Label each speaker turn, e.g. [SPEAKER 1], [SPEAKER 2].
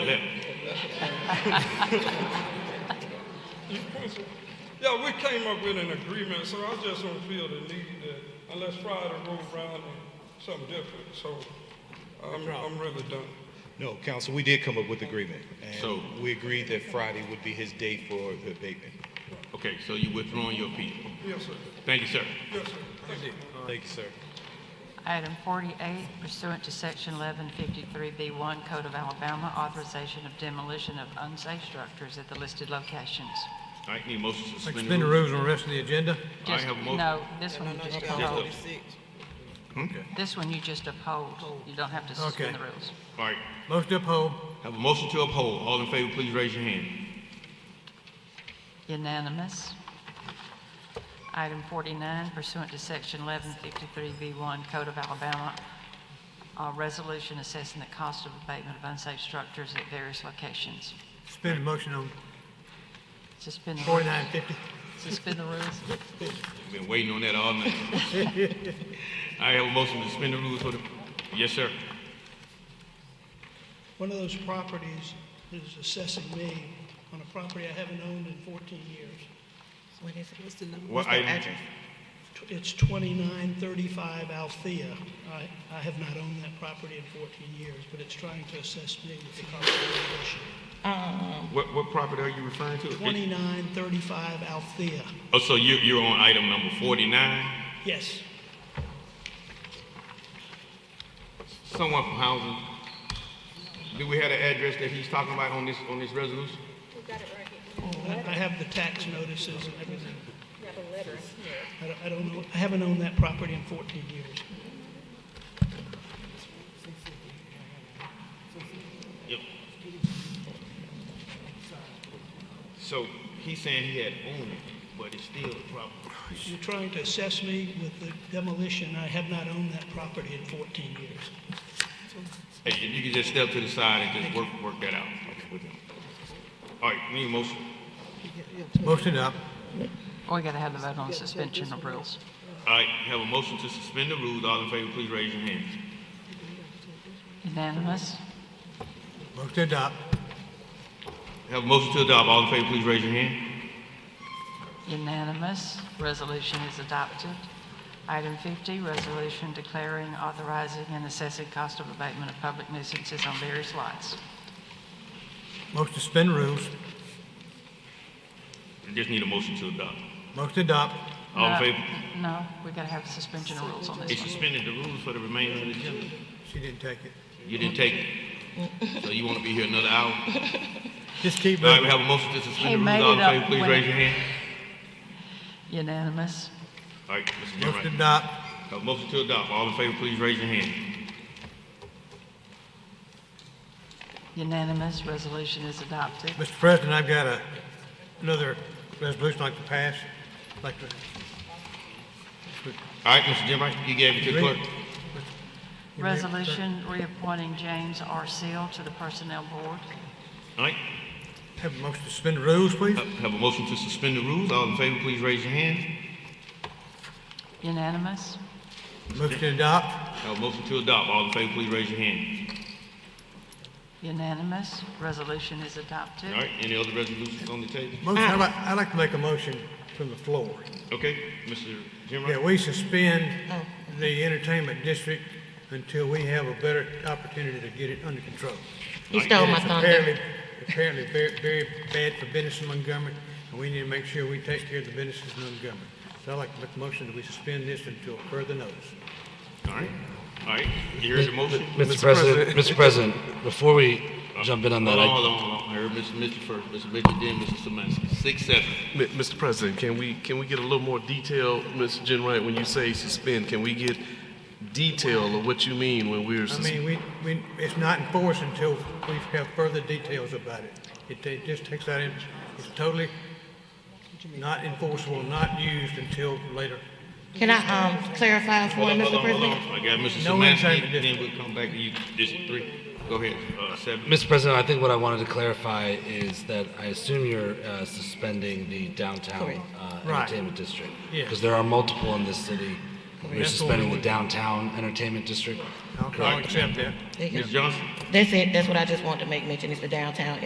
[SPEAKER 1] Yeah, we came up with an agreement, so I just don't feel the need that, unless Friday rolls around and something different, so I'm, I'm really done.
[SPEAKER 2] No, council, we did come up with agreement.
[SPEAKER 3] So-
[SPEAKER 2] And we agreed that Friday would be his day for the abatement.
[SPEAKER 3] Okay, so you withdrawing your appeal.
[SPEAKER 1] Yes, sir.
[SPEAKER 3] Thank you, sir.
[SPEAKER 1] Yes, sir. Thank you.
[SPEAKER 2] Thank you, sir.
[SPEAKER 4] Item 48, pursuant to Section 1153B1 Code of Alabama, authorization of demolition of unsafe structures at the listed locations.
[SPEAKER 3] All right, need a motion to suspend
[SPEAKER 5] Suspend
[SPEAKER 3] the
[SPEAKER 5] the
[SPEAKER 3] rules.
[SPEAKER 5] rules on the rest of the agenda.
[SPEAKER 3] I have a
[SPEAKER 4] Just-
[SPEAKER 3] motion.
[SPEAKER 4] No, this one you just uphold.
[SPEAKER 5] Okay.
[SPEAKER 4] This one you just uphold. You don't have to suspend
[SPEAKER 5] Okay.
[SPEAKER 4] the rules.
[SPEAKER 3] All right,
[SPEAKER 5] Motion to uphold.
[SPEAKER 3] have a motion to uphold. All in favor, please raise your hand.
[SPEAKER 4] Unanimous. Item 49 pursuant to Section 1153B1 Code of Alabama, uh, resolution assessing the cost of abatement of unsafe structures at various locations.
[SPEAKER 5] Suspend the motion on
[SPEAKER 4] Suspend the rules.
[SPEAKER 5] forty-nine fifty.
[SPEAKER 4] Suspend the rules.
[SPEAKER 3] We've been waiting on that all night. I have a motion to suspend the rules for the, yes, sir.
[SPEAKER 6] One of those properties is assessing me on a property I haven't owned in 14 years.
[SPEAKER 7] What is it? What's the number?
[SPEAKER 3] What
[SPEAKER 7] What's the
[SPEAKER 3] item?
[SPEAKER 7] address?
[SPEAKER 6] Tw- It's 2935 Althea. I, I have not owned that property in 14 years, but it's trying to assess me with the cost of demolition.
[SPEAKER 3] What, what property are you referring to?
[SPEAKER 6] 2935 Althea.
[SPEAKER 3] Oh, so you, you're on item number forty-nine?
[SPEAKER 6] Yes,
[SPEAKER 3] Someone from housing, do we have the address that he's talking about on this, on this resolution?
[SPEAKER 6] I I have the tax notices and everything. You have a letter in here. I don't, I don't know, I haven't owned that property in 14 years.
[SPEAKER 3] So he's saying he had owned it, but it's still a problem.
[SPEAKER 6] You're trying to assess me with the demolition. I have not owned that property in 14 years.
[SPEAKER 3] Hey, if you could just step to the side and just work, work that out with him. All right, need a motion?
[SPEAKER 5] Motion up.
[SPEAKER 4] We gotta have the vote on suspension of rules.
[SPEAKER 3] All right, have a motion to suspend the rules. All in favor, please raise your hand.
[SPEAKER 4] Unanimous.
[SPEAKER 5] Motion to adopt.
[SPEAKER 3] Have a motion to adopt. All in favor, please raise your hand.
[SPEAKER 4] Unanimous. Resolution is adopted. Item 50, resolution declaring, authorizing, and assessing cost of abatement of public nuisances on various lots.
[SPEAKER 5] Motion to suspend the rules.
[SPEAKER 3] We just need a motion to adopt.
[SPEAKER 5] Motion to adopt.
[SPEAKER 3] All
[SPEAKER 4] No,
[SPEAKER 3] in favor?
[SPEAKER 4] No, we gotta have suspension of rules on
[SPEAKER 3] They
[SPEAKER 4] this one.
[SPEAKER 3] suspended the rules for the remainder of the agenda.
[SPEAKER 5] She didn't take it.
[SPEAKER 3] You didn't take it. So you want to be here another hour? All
[SPEAKER 5] Just keep
[SPEAKER 3] right, we
[SPEAKER 5] moving.
[SPEAKER 3] have a motion to
[SPEAKER 4] He
[SPEAKER 3] suspend the
[SPEAKER 4] made
[SPEAKER 3] rules. All in
[SPEAKER 4] it up
[SPEAKER 3] favor, please
[SPEAKER 4] when-
[SPEAKER 3] raise your hand.
[SPEAKER 4] Unanimous.
[SPEAKER 3] All right, Mr.
[SPEAKER 5] Motion to
[SPEAKER 3] Enright.
[SPEAKER 5] adopt.
[SPEAKER 3] Have a motion to adopt. All in favor, please raise your hand.
[SPEAKER 4] Unanimous. Resolution is adopted.
[SPEAKER 5] Mr. President, I've got a, another resolution I'd like to pass. I'd Like to,
[SPEAKER 3] All right, Mr. Enright, you gave it to the
[SPEAKER 5] Read
[SPEAKER 3] clerk.
[SPEAKER 5] it. You may-
[SPEAKER 4] Resolution reappointing James R. Seal to the Personnel Board.
[SPEAKER 3] All right,
[SPEAKER 5] have a motion to suspend the rules, please.
[SPEAKER 3] have Uh, have a motion to suspend the rules. All in favor, please raise your hand.
[SPEAKER 4] Unanimous.
[SPEAKER 5] Motion to adopt.
[SPEAKER 3] Have a motion to adopt. All in favor, please raise your hand.
[SPEAKER 4] Unanimous. Resolution is adopted.
[SPEAKER 3] All right, any other resolutions on the table?
[SPEAKER 5] Motion, I'd like, I'd like to make a motion from the floor.
[SPEAKER 3] Okay, Mr. Enright?
[SPEAKER 5] that we suspend
[SPEAKER 7] Oh.
[SPEAKER 5] the entertainment district until we have a better opportunity to get it under control.
[SPEAKER 7] You stole
[SPEAKER 5] And
[SPEAKER 7] my
[SPEAKER 5] it's
[SPEAKER 7] thunder.
[SPEAKER 5] apparently, apparently very, very bad for business in Montgomery, and we need to make sure we take care of the businesses in Montgomery. So I'd like to make a motion that we suspend this until further notice.
[SPEAKER 3] All right, all right, you heard the motion?
[SPEAKER 8] Mr. President, Mr. President, before we jump in on that,
[SPEAKER 3] Hold on,
[SPEAKER 8] I-
[SPEAKER 3] hold on, hold on. I heard Mr. Mitchell first, Mr. Mitchell, then Mr. Semansky. Six, seven.
[SPEAKER 9] Mi- Mr. President, can we, can we get a little more detail, Ms. Jenright, when you say suspend, can we get detail of what you mean when we're
[SPEAKER 5] I
[SPEAKER 9] suspending?
[SPEAKER 5] mean, we, we, it's not enforced until we have further details about it. It, ta- just takes that in, it's totally not enforceable, not used until later.
[SPEAKER 7] Can I, um, clarify for
[SPEAKER 3] Hold on, hold
[SPEAKER 7] Mr.
[SPEAKER 3] on, hold on.
[SPEAKER 7] President?
[SPEAKER 3] I got Mr.
[SPEAKER 5] No
[SPEAKER 3] Semansky,
[SPEAKER 5] entertainment
[SPEAKER 3] then
[SPEAKER 5] district.
[SPEAKER 3] we'll come back to you, District Three. Go ahead, uh, seven.
[SPEAKER 8] Mr. President, I think what I wanted to clarify is that I assume you're uh, suspending the downtown uh,
[SPEAKER 5] Right.
[SPEAKER 8] entertainment district.
[SPEAKER 5] Yeah.
[SPEAKER 8] Because there are multiple in this city. You're
[SPEAKER 5] That's the one
[SPEAKER 8] suspending the
[SPEAKER 5] we-
[SPEAKER 8] downtown entertainment district.
[SPEAKER 5] I'll- I'll accept that.
[SPEAKER 3] Ms. Johnson?
[SPEAKER 7] That's it. That's what I just wanted to make mention. It's the downtown